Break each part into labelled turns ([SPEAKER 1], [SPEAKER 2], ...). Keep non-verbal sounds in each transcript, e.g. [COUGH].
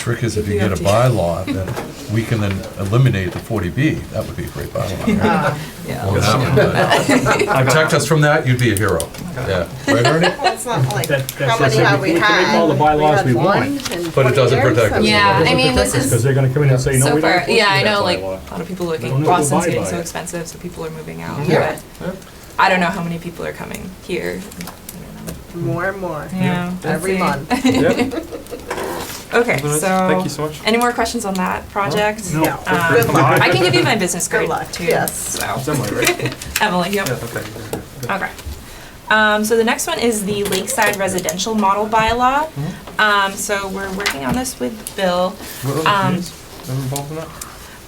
[SPEAKER 1] Trick is if you
[SPEAKER 2] You
[SPEAKER 1] get a
[SPEAKER 2] have to-
[SPEAKER 1] bylaw, then we can then eliminate the 40B. That would be a great
[SPEAKER 3] [LAUGHS]
[SPEAKER 1] bylaw.
[SPEAKER 3] Uh,
[SPEAKER 2] Yeah.
[SPEAKER 1] Well, that would, uh, Protect us from that, you'd be a hero. Yeah, right, Ernie?
[SPEAKER 3] That's not like,
[SPEAKER 4] That- that's
[SPEAKER 3] how many
[SPEAKER 4] just-
[SPEAKER 3] have
[SPEAKER 4] we
[SPEAKER 3] we
[SPEAKER 4] can make
[SPEAKER 3] had?
[SPEAKER 4] all the
[SPEAKER 3] We
[SPEAKER 4] bylaws
[SPEAKER 3] had
[SPEAKER 4] we want.
[SPEAKER 3] one in
[SPEAKER 1] But it
[SPEAKER 3] 20
[SPEAKER 1] doesn't
[SPEAKER 3] years,
[SPEAKER 1] protect
[SPEAKER 3] so-
[SPEAKER 1] us.
[SPEAKER 5] Yeah, I mean, this
[SPEAKER 4] Because
[SPEAKER 5] is
[SPEAKER 4] they're gonna come in and say, no,
[SPEAKER 5] so
[SPEAKER 4] we don't.
[SPEAKER 5] far, yeah, I know, like,
[SPEAKER 2] A lot of people are
[SPEAKER 4] Don't
[SPEAKER 5] looking,
[SPEAKER 4] know if we'll
[SPEAKER 5] Boston's
[SPEAKER 4] buy
[SPEAKER 5] getting
[SPEAKER 4] by
[SPEAKER 5] so
[SPEAKER 4] it.
[SPEAKER 5] expensive, so people are moving out,
[SPEAKER 3] Yeah.
[SPEAKER 5] but I don't know how many people are coming here.
[SPEAKER 3] More and more,
[SPEAKER 5] Yeah.
[SPEAKER 3] every [LAUGHS] month.
[SPEAKER 6] [LAUGHS]
[SPEAKER 4] Yep.
[SPEAKER 5] [LAUGHS] Okay,
[SPEAKER 6] Thank
[SPEAKER 5] so,
[SPEAKER 6] you so much.
[SPEAKER 5] any more questions on that project?
[SPEAKER 4] No.
[SPEAKER 3] Yeah.
[SPEAKER 5] Um,
[SPEAKER 3] Good luck.
[SPEAKER 5] I can give you my business
[SPEAKER 3] [LAUGHS] Good
[SPEAKER 5] card
[SPEAKER 3] luck,
[SPEAKER 5] too.
[SPEAKER 3] yes.
[SPEAKER 5] So,
[SPEAKER 6] Somewhere, right?
[SPEAKER 5] Emily, yep.
[SPEAKER 6] Yeah, [LAUGHS] okay. yeah, yeah,
[SPEAKER 5] Okay. Um, so the next one is the Lakeside Residential Model Bylaw.
[SPEAKER 4] Hmm?
[SPEAKER 5] Um, so we're working on this with Bill.
[SPEAKER 6] yeah. What other
[SPEAKER 5] Um,
[SPEAKER 4] Hmm?
[SPEAKER 6] communities are involved in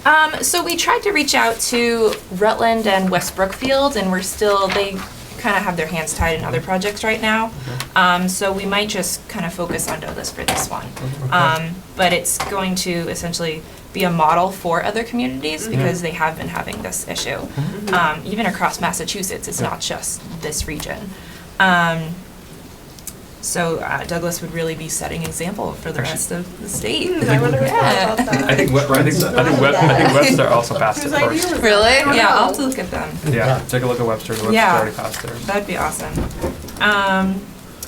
[SPEAKER 6] that?
[SPEAKER 5] Um, so we tried to reach out to Rutland and West Brookfield, and we're still, they kind of have their hands tied in other projects right now. Um, so we might just kind of focus on Douglas for this one. Um, but it's going to essentially be a model for other communities because they have been having this issue.
[SPEAKER 6] Mm-hmm.
[SPEAKER 5] Um, even across Massachusetts, it's not just this region. Um, so uh, Douglas would really be setting example for the rest of the state.
[SPEAKER 3] Mm, I wonder who thought about that.
[SPEAKER 6] I think, we- I think, I think Web- I think Webster also passed it
[SPEAKER 3] Whose idea was
[SPEAKER 6] first.
[SPEAKER 3] that?
[SPEAKER 5] Really?
[SPEAKER 3] I don't
[SPEAKER 5] Yeah, I'll
[SPEAKER 3] know.
[SPEAKER 5] have to look at them.
[SPEAKER 6] Yeah, take a look at Webster, Webster
[SPEAKER 5] Yeah.
[SPEAKER 6] already passed theirs.
[SPEAKER 5] That'd be awesome. Um,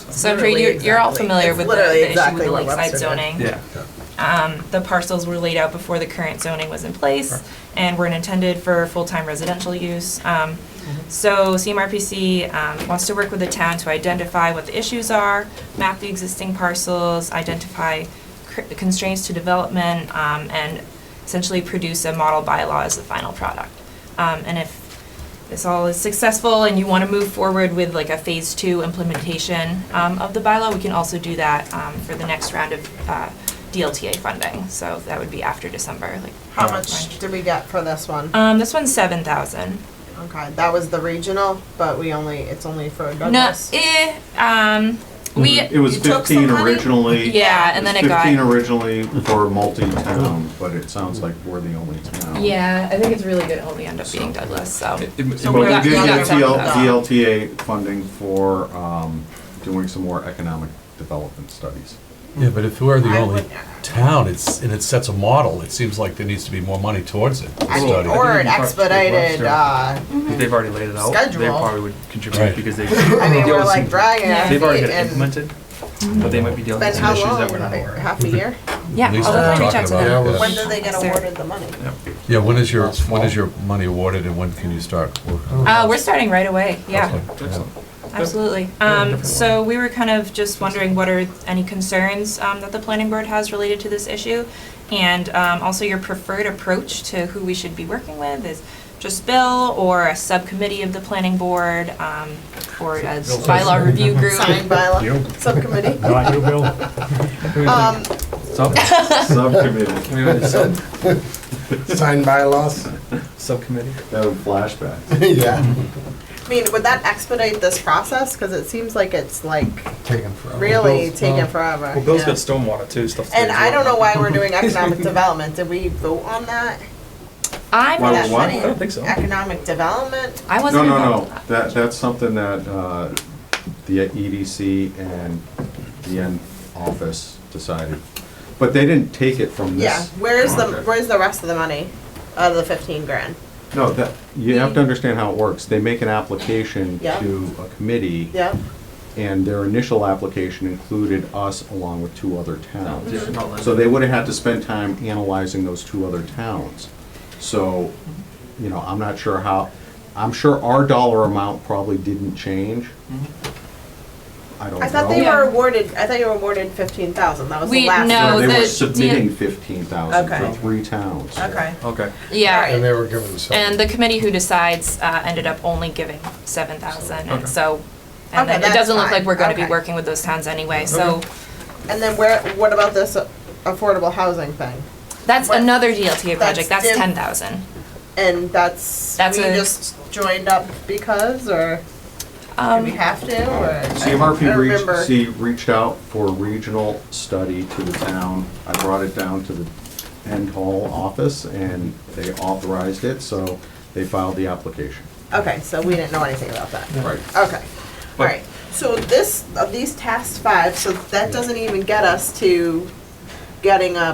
[SPEAKER 5] so I'm sure
[SPEAKER 3] Literally
[SPEAKER 5] you're, you're all
[SPEAKER 3] exactly.
[SPEAKER 5] familiar
[SPEAKER 3] It's
[SPEAKER 5] with the,
[SPEAKER 3] literally
[SPEAKER 5] the issue with
[SPEAKER 3] exactly
[SPEAKER 5] the
[SPEAKER 3] what
[SPEAKER 5] lakeside
[SPEAKER 3] Webster did.
[SPEAKER 5] zoning.
[SPEAKER 6] Yeah.
[SPEAKER 5] Um, the parcels were laid out before the current zoning was in place and were intended for full-time residential use. Um, so CMRPC, um, wants to work with the town to identify what the issues are, map the existing parcels, identify cr- constraints to development, um, and essentially produce a model bylaw as the final product. Um, and if this all is successful and you want to move forward with like a phase two implementation um, of the bylaw, we can also do that um, for the next round of uh, DLTA funding. So that would be after December, like.
[SPEAKER 3] How
[SPEAKER 5] right.
[SPEAKER 3] much did we get for this one?
[SPEAKER 5] Um, this one's seven thousand.
[SPEAKER 3] Okay, that was the regional, but we only, it's only for
[SPEAKER 5] No,
[SPEAKER 3] Douglas.
[SPEAKER 5] eh, um, we,
[SPEAKER 7] It was
[SPEAKER 3] you took
[SPEAKER 7] fifteen
[SPEAKER 3] some money?
[SPEAKER 7] originally.
[SPEAKER 5] [LAUGHS] Yeah, and then it got-
[SPEAKER 7] Fifteen originally for multi-town, but it sounds like we're the only town.
[SPEAKER 5] yeah, I think it's really good only end up being Douglas, so.
[SPEAKER 7] But
[SPEAKER 5] we're
[SPEAKER 7] we
[SPEAKER 5] not-
[SPEAKER 7] did
[SPEAKER 5] we're
[SPEAKER 7] get
[SPEAKER 5] not talking
[SPEAKER 7] DL
[SPEAKER 5] about that.
[SPEAKER 7] DLTA funding for, um, doing some more economic
[SPEAKER 5] [LAUGHS]
[SPEAKER 7] development studies.
[SPEAKER 1] Yeah, but if we're the
[SPEAKER 3] I
[SPEAKER 1] only
[SPEAKER 3] would-
[SPEAKER 1] town, it's, and it sets a model, it seems like there needs to be more money towards it. to
[SPEAKER 3] I mean,
[SPEAKER 1] study.
[SPEAKER 3] or an
[SPEAKER 6] I think
[SPEAKER 3] expedited,
[SPEAKER 6] Webster-
[SPEAKER 3] uh,
[SPEAKER 6] If They've already laid it out. They
[SPEAKER 3] Schedule.
[SPEAKER 6] probably would
[SPEAKER 1] Right.
[SPEAKER 6] contribute because
[SPEAKER 3] [LAUGHS]
[SPEAKER 6] they.
[SPEAKER 3] I mean,
[SPEAKER 6] they
[SPEAKER 3] we're
[SPEAKER 6] also-
[SPEAKER 3] like dragging our
[SPEAKER 6] They've already
[SPEAKER 3] feet
[SPEAKER 6] got it
[SPEAKER 3] and
[SPEAKER 6] implemented, but they might be dealing
[SPEAKER 3] then
[SPEAKER 6] with some
[SPEAKER 3] how
[SPEAKER 6] issues that we're
[SPEAKER 3] long?
[SPEAKER 6] not aware of.
[SPEAKER 3] Half a year?
[SPEAKER 5] Yeah,
[SPEAKER 1] At least
[SPEAKER 5] I'll
[SPEAKER 1] we're
[SPEAKER 5] definitely reach
[SPEAKER 1] talking
[SPEAKER 5] out to
[SPEAKER 1] about
[SPEAKER 5] them.
[SPEAKER 1] it.
[SPEAKER 3] When do they get
[SPEAKER 5] Sarah.
[SPEAKER 3] awarded the money?
[SPEAKER 1] Yeah, when is your, when is your money awarded and when can you start working?
[SPEAKER 5] Uh, we're starting right away, yeah.
[SPEAKER 1] Excellent.
[SPEAKER 5] Absolutely. Um, so we were kind of just wondering what are any concerns, um, that the planning board has related to this issue? And, um, also your preferred approach to who we should be working with is just Bill or a subcommittee of the planning board, um, or a bylaw review
[SPEAKER 7] [LAUGHS]
[SPEAKER 5] group?
[SPEAKER 3] Signed by
[SPEAKER 4] You.
[SPEAKER 3] a subcommittee?
[SPEAKER 4] Not you, Bill?
[SPEAKER 3] Um, [LAUGHS]
[SPEAKER 6] Sub,
[SPEAKER 7] Subcommittee,
[SPEAKER 6] can we have a sub,
[SPEAKER 8] Sign bylaws?
[SPEAKER 6] subcommittee?
[SPEAKER 7] that
[SPEAKER 5] [LAUGHS]
[SPEAKER 7] was
[SPEAKER 8] [LAUGHS]
[SPEAKER 7] flashbacks.
[SPEAKER 8] Yeah.
[SPEAKER 3] I mean, would that expedite this process? Cause it seems like it's like
[SPEAKER 8] Taken forever.
[SPEAKER 3] really
[SPEAKER 6] Bill's-
[SPEAKER 3] taking
[SPEAKER 6] Oh, well,
[SPEAKER 3] forever.
[SPEAKER 6] Well, Bill's
[SPEAKER 3] yeah.
[SPEAKER 6] got stormwater too, stuff to do.
[SPEAKER 3] And
[SPEAKER 6] as
[SPEAKER 3] I
[SPEAKER 6] well.
[SPEAKER 3] don't know why we're
[SPEAKER 6] [LAUGHS]
[SPEAKER 3] doing economic development. Did we vote on that?
[SPEAKER 5] I'm,
[SPEAKER 7] Why
[SPEAKER 5] not-
[SPEAKER 3] That
[SPEAKER 7] would what?
[SPEAKER 3] money?
[SPEAKER 6] I don't think so.
[SPEAKER 3] Economic development?
[SPEAKER 5] I
[SPEAKER 7] No,
[SPEAKER 5] wasn't
[SPEAKER 7] no,
[SPEAKER 5] involved.
[SPEAKER 7] no, that, that's something that, uh, the EDC and the N office decided. But they didn't take it from
[SPEAKER 3] Yeah,
[SPEAKER 7] this.
[SPEAKER 3] where's the,
[SPEAKER 7] project.
[SPEAKER 3] where's the rest of the money out of the fifteen grand?
[SPEAKER 7] No, that, you have to understand how it works. They make an application
[SPEAKER 3] Yeah.
[SPEAKER 7] to a committee,
[SPEAKER 3] Yep,
[SPEAKER 7] and their initial application included us along with two other towns.
[SPEAKER 6] Yeah, not like-
[SPEAKER 7] So they would have had to spend time analyzing those two other towns. So, you know, I'm not sure how, I'm sure our dollar amount probably didn't change. I don't know.
[SPEAKER 3] Mm-hmm. I thought they
[SPEAKER 5] Yeah.
[SPEAKER 3] were awarded, I thought you were awarded fifteen thousand, that was the
[SPEAKER 5] We-
[SPEAKER 3] last.
[SPEAKER 5] no.
[SPEAKER 7] No,
[SPEAKER 5] Oh,
[SPEAKER 7] They
[SPEAKER 5] the-
[SPEAKER 7] were
[SPEAKER 5] yeah.
[SPEAKER 7] submitting fifteen thousand
[SPEAKER 3] Okay.
[SPEAKER 7] for three towns.
[SPEAKER 3] Okay,
[SPEAKER 6] Okay.
[SPEAKER 5] Yeah,
[SPEAKER 3] Alright.
[SPEAKER 8] And they were given some.
[SPEAKER 5] and the committee who decides, uh, ended up only giving seven thousand, and
[SPEAKER 6] Okay.
[SPEAKER 5] so, and
[SPEAKER 3] Okay,
[SPEAKER 5] then it
[SPEAKER 3] that's
[SPEAKER 5] doesn't look like
[SPEAKER 3] fine.
[SPEAKER 5] we're gonna be
[SPEAKER 3] Okay.
[SPEAKER 5] working with those towns anyway, so.
[SPEAKER 3] and then where, what about this affordable housing thing?
[SPEAKER 5] That's
[SPEAKER 3] What-
[SPEAKER 5] another DLTA project.
[SPEAKER 3] That's
[SPEAKER 5] That's,
[SPEAKER 3] diff-
[SPEAKER 5] ten thousand.
[SPEAKER 3] And that's,
[SPEAKER 5] That's
[SPEAKER 3] we
[SPEAKER 5] a-
[SPEAKER 3] just joined up because, or do
[SPEAKER 5] Um,
[SPEAKER 3] we have to, or? I
[SPEAKER 7] CMRPC
[SPEAKER 3] don't remember.
[SPEAKER 7] reached, see, reached out for a regional study to the town. I brought it down to the end hall office and they authorized it, so they filed the application.
[SPEAKER 3] Okay, so we didn't know anything about that.
[SPEAKER 7] Right.
[SPEAKER 3] Okay, all right. So this, of these tasks five, so that doesn't even get us to getting a